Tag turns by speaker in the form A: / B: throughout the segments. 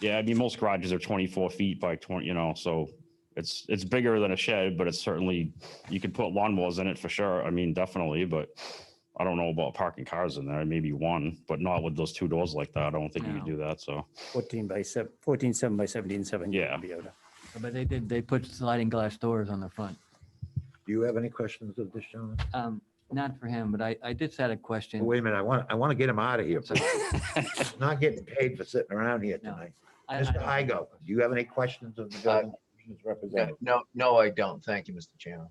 A: Yeah, I mean, most garages are twenty-four feet by twenty, you know, so it's, it's bigger than a shed, but it's certainly, you could put lawnmowers in it for sure. I mean, definitely, but I don't know about parking cars in there, maybe one, but not with those two doors like that. I don't think you could
B: No.
A: do that, so.
C: 14 by 7, 14, 7 by 17, 7.
A: Yeah.
B: But they did, they put sliding glass doors on the front.
D: Do you have any questions of this gentleman?
B: Um, not for him, but I, I just had a
D: Oh,
B: question.
D: Wait a minute, I want, I want to get him out of here.
B: So,
D: He's Not getting paid for sitting around here
B: No.
D: tonight.
B: I-
D: Mr.
B: I-
D: Igo, do you have any questions of the government commission's representative?
E: No, no, I don't. Thank you, Mr. Chairman.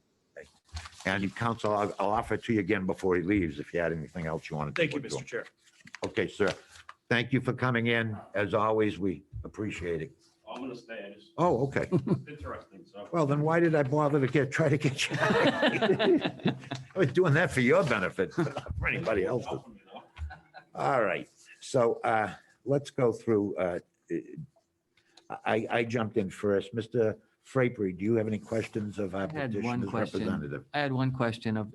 D: And counsel, I'll, I'll offer it to you again before he leaves, if you had anything else you wanted to.
F: Thank you,
D: put to him.
F: Mr. Chair.
D: Okay, sir. Thank you for coming in. As always, we appreciate it.
A: I'm gonna stay, I just,
D: Oh, okay.
A: interesting, so.
D: Well, then why did I bother to get, try to get you? I was doing that for your benefit, not for anybody else's. All right, so uh, let's go through. uh, I, I jumped in first. Mr. Frapery, do you have any questions of our
B: I had one
D: petitioner's
B: question.
D: representative?
B: I had one question of,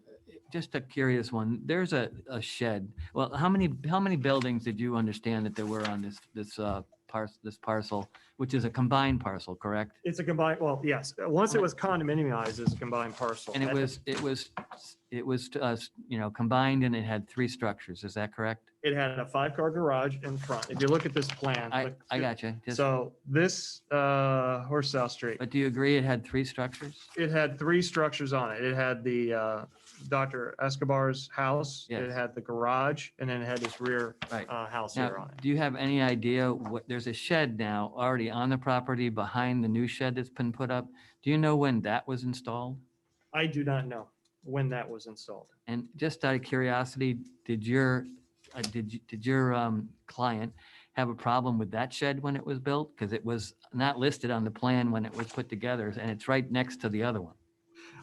B: just a curious one. There's a, a shed. Well, how many, how many buildings did you understand that there were on this, this, uh, parcel, this parcel, which is a combined parcel, correct?
G: It's a combined, well, yes, once it was condominiumized, it's a combined parcel.
B: And it
G: At the-
B: was, it was, it was, uh, s- you know, combined and it had three structures. Is that correct?
G: It had a five-car garage in front. If you look at this plan.
B: I,
G: look-
B: I got you. Just,
G: So this, uh, Horse South Street,
B: but do you agree it had three structures?
G: it had three structures on it. It had the, uh, Dr. Escobar's house. It
B: Yes.
G: had the garage and then it had his rear,
B: Right.
G: uh, house here
B: Now,
G: on it.
B: do you have any idea what, there's a shed now already on the property behind the new shed that's been put up. Do you know when that was installed?
G: I do not know when that was installed.
B: And just out of curiosity, did your, uh, did, you- did your um, client have a problem with that shed when it was built? Because it was not listed on the plan when it was put together and it's right next to the other one.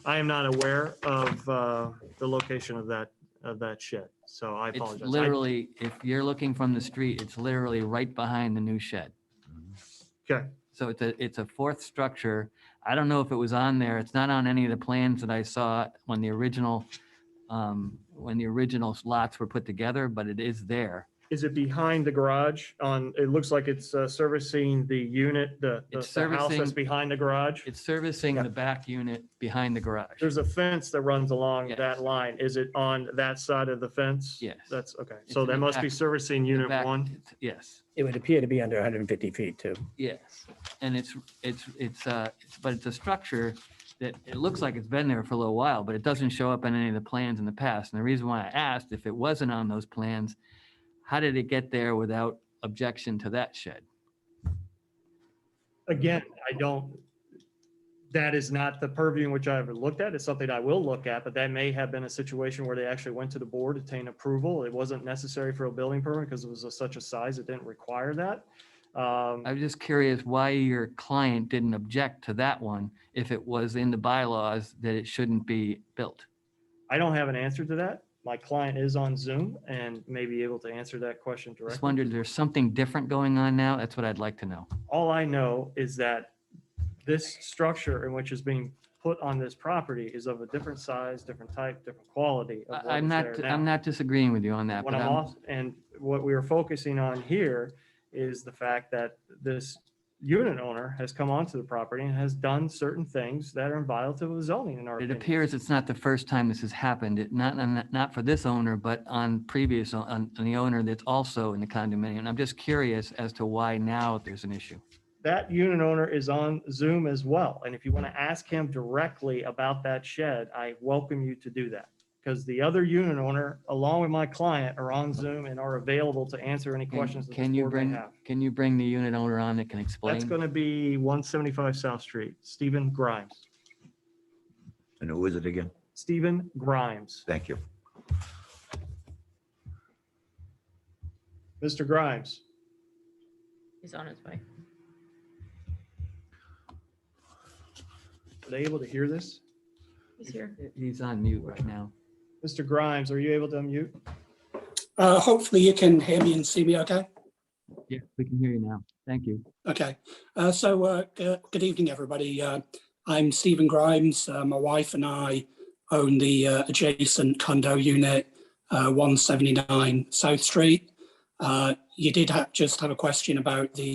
G: I am not aware of, uh, the location of that, of that shed. So I
B: It's
G: apologize. I-
B: literally, if you're looking from the street, it's literally right behind the new shed.
G: Okay.
B: So it's a, it's a fourth structure. I don't know if it was on there. It's not on any of the plans that I saw when the original, um, when the original lots were put together, but it is there.
G: Is it behind the garage on, it looks like it's uh, servicing the unit, the, the
B: It's
G: the house that's
B: servicing-
G: behind the garage?
B: It's servicing the back unit behind the garage.
G: There's a fence that runs along
B: Yes.
G: that line. Is it on that side of the fence?
B: Yes.
G: That's, okay.
B: It's
G: So
B: in the
G: that must be
B: back-
G: servicing
B: The
G: unit
B: back-
G: one?
B: Yes,
C: It would appear to be under 150 feet too.
B: yes. And it's, it's, it's, uh, it's- but it's a structure that it looks like it's been there for a little while, but it doesn't show up on any of the plans in the past. And the reason why I asked if it wasn't on those plans, how did it get there without objection to that shed?
G: Again, I don't, that is not the purview in which I ever looked at. It's something I will look at, but that may have been a situation where they actually went to the board, obtained approval. It wasn't necessary for a building permit because it was of such a size, it didn't require that. Um,
B: I'm just curious why your client didn't object to that one if it was in the bylaws that it shouldn't be built.
G: I don't have an answer to that. My client is on Zoom and may be able to answer that question
B: Just
G: directly.
B: wondered, there's something different going on now? That's what I'd like to know.
G: All I know is that this structure in which is being put on this property is of a different size, different type, different quality. of
B: I-
G: what
B: I'm
G: is
B: not,
G: there now.
B: I'm not disagreeing with you on that,
G: What
B: but
G: I'm
B: I'm,
G: off, and what we are focusing on here is the fact that this unit owner has come onto the property and has done certain things that are in violation of zoning in our
B: it
G: opinion.
B: appears it's not the first time this has happened. It not, not- not for this owner, but on previous, on on the owner that's also in the condominium. I'm just curious as to why now there's an issue.
G: that unit owner is on Zoom as well. And if you want to ask him directly about that shed, I welcome you to do that. Because the other unit owner, along with my client, are on Zoom and are available to answer any
B: Can-
G: questions that the
B: Can you
G: board may
B: bring,
G: have.
B: can you bring the unit owner on that can explain?
G: That's going to be 175 South Street, Stephen Grimes.
D: And who is it again?
G: Stephen Grimes.
D: Thank you.
G: Mr. Grimes,
H: He's on his way.
G: are they able to hear this?
H: He's here.
B: He's on mute right now.
G: Mr. Grimes, are you able to unmute?
I: Uh, hopefully you can hear me and see me okay.
B: Yeah, we can hear you now. Thank you.
I: Okay. Uh, so uh, g- good evening, everybody. Uh, I'm Stephen Grimes. Uh, my wife and I own the uh, adjacent condo unit, uh, 179 South Street. Uh, you did ha- just have a question about the